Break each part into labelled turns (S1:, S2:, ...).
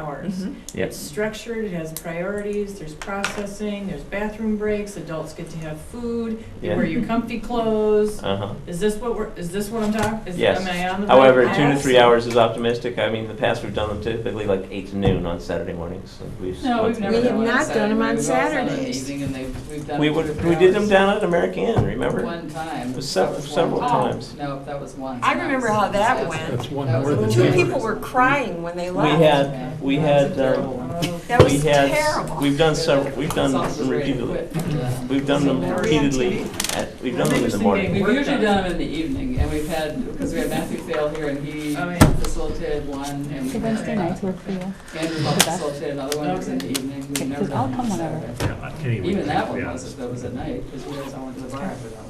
S1: hours. It's
S2: Yes.
S1: structured, it has priorities, there's processing, there's bathroom breaks, adults get to have food, you
S2: Yeah.
S1: wear your comfy clothes.
S2: Uh-huh.
S1: Is this what we're, is this what I'm talking, is,
S2: Yes.
S1: am I on the right
S2: However, two to
S1: path?
S2: three hours is optimistic. I mean, in the past, we've done them typically like eight to noon on Saturday mornings. and we've
S3: No,
S2: went
S3: we've
S2: through
S3: never
S4: We
S2: them.
S3: done
S4: have
S3: one on
S4: not done
S3: Saturday.
S4: them on
S3: We've all done an
S4: Saturdays.
S3: evening and they've, we've done.
S2: We
S3: it
S2: would,
S3: for
S2: we did them
S3: hours.
S2: down at American Inn, remember?
S3: One time.
S2: It was
S3: That
S2: sev-
S3: was one
S2: several
S3: time.
S2: times.
S3: No, that was once.
S4: I
S3: and that
S4: remember
S3: was
S4: how
S3: a
S4: that
S3: disaster.
S4: went.
S5: That's one
S3: That
S5: more
S3: was
S5: than
S3: a
S4: Two
S5: Yeah.
S4: people
S3: disaster.
S4: were crying when they
S2: We
S4: left.
S2: had, we
S3: That was
S2: had,
S3: a
S2: um,
S3: terrible one.
S4: That
S2: we
S4: was
S2: had-
S4: terrible.
S2: We've done several, we've done
S3: Some of us
S2: them
S3: were ready to
S2: repeatedly.
S3: quit after that.
S2: We've done them
S1: Some
S2: repeatedly. at- We've done them in the
S1: Interesting
S2: morning.
S1: thing.
S3: We've usually done them in the evening and we've had, because we had Matthew Fail here and he
S1: Oh, yeah.
S3: facilitated one and.
S6: The
S3: we
S6: Wednesday
S3: had
S6: nights work for you.
S3: Andrew Buck facilitated another one, it was in the evening. We've never
S6: Because I'll
S3: done one on
S6: come
S3: Saturday.
S6: whenever.
S5: Yeah, anyway.
S3: Even that one
S5: yeah.
S3: was, if that was at night, because we always all went to the bar after that one.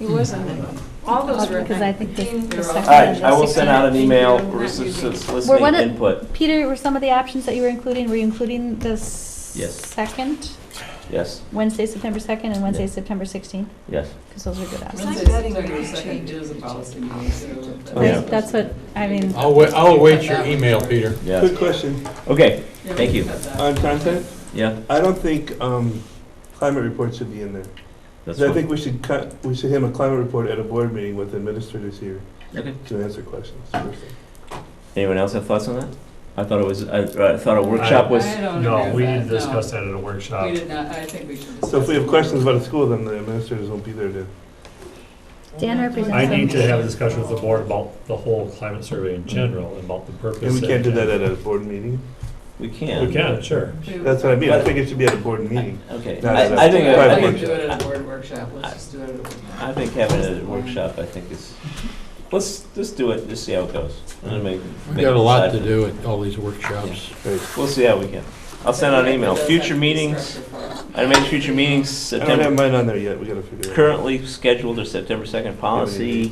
S4: It wasn't, all those were.
S6: Because I think the- the
S3: All
S6: second.
S2: All right,
S6: and the
S2: I will
S6: sixth-
S2: send out an email
S4: Thank you.
S6: Were one
S2: soliciting
S6: of-
S2: input.
S6: Peter, were some of the options that you were including, were you including the s-
S2: Yes.
S6: second?
S2: Yes,
S6: Wednesday, September second and Wednesday,
S2: Yeah.
S6: September sixteenth?
S2: yes.
S6: Because those are good options.
S4: I'm
S3: Wednesday,
S4: betting we
S3: September
S4: can
S3: second
S4: change it.
S3: is a policy meeting, so.
S2: Oh, yeah.
S6: Right, That's what, I mean,
S5: I'll wait, I'll await your email, Peter.
S2: Yeah.
S7: Good question.
S2: Okay,
S3: Yeah, we
S2: Thank
S3: can
S2: you.
S3: cut that.
S7: On content,
S2: yeah.
S7: I don't think um, climate reports should be in there. 'Cause
S2: that's
S7: I
S2: fine.
S7: think we should cut, we should have a climate report at a board meeting with administrators here
S2: Okay.
S7: to answer questions.
S2: Anyone else have thoughts on that? I thought it was, I I thought a workshop was,
S3: I don't agree
S5: No,
S3: with
S5: we didn't
S3: that, no.
S5: discuss that at a workshop.
S3: We did not, I think we should discuss.
S7: So if we have
S3: it.
S7: questions about the school, then the administrators won't be there to.
S6: Dan represents.
S5: I need to
S6: them.
S5: have a discussion with the board about the whole climate survey in general, and about the purpose.
S7: And we can't do that
S5: and-
S7: at a board meeting?
S2: we can.
S5: We can, sure.
S3: We-
S7: That's what I mean. I think it should be at a board meeting.
S2: Okay,
S7: No,
S2: I,
S7: no,
S2: I
S7: no.
S2: think,
S3: I
S7: Quite a
S3: think
S2: I
S3: we should
S2: think,
S3: do it at a board workshop, let's just do it at a workshop.
S2: I think having a workshop, I think is, let's, let's do it, just see how it goes. and then make-
S8: We got a lot to
S2: decide.
S8: do at all these workshops.
S7: Right.
S2: We'll see how we can. I'll send out an email, future meetings, I made future meetings,
S7: I don't have
S2: September,
S7: mine on there yet. We gotta figure it out.
S2: currently scheduled a September second policy,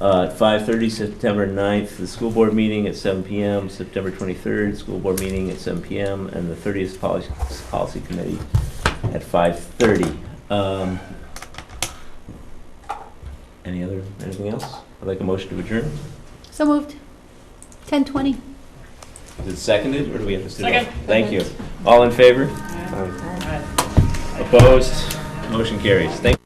S2: uh, at five thirty, September 9th, the school board meeting at seven PM, September twenty-third, school board meeting at seven PM, and the thirtieth policy, policy committee at five thirty. Um, any other, anything else? I'd like a motion to adjourn.
S6: So moved. Ten twenty.
S2: Is it seconded, or do we have to sit down?
S1: Second.
S2: Thank you. All in favor?
S7: Fine.
S1: All right.
S2: Opposed? Motion carries. Thank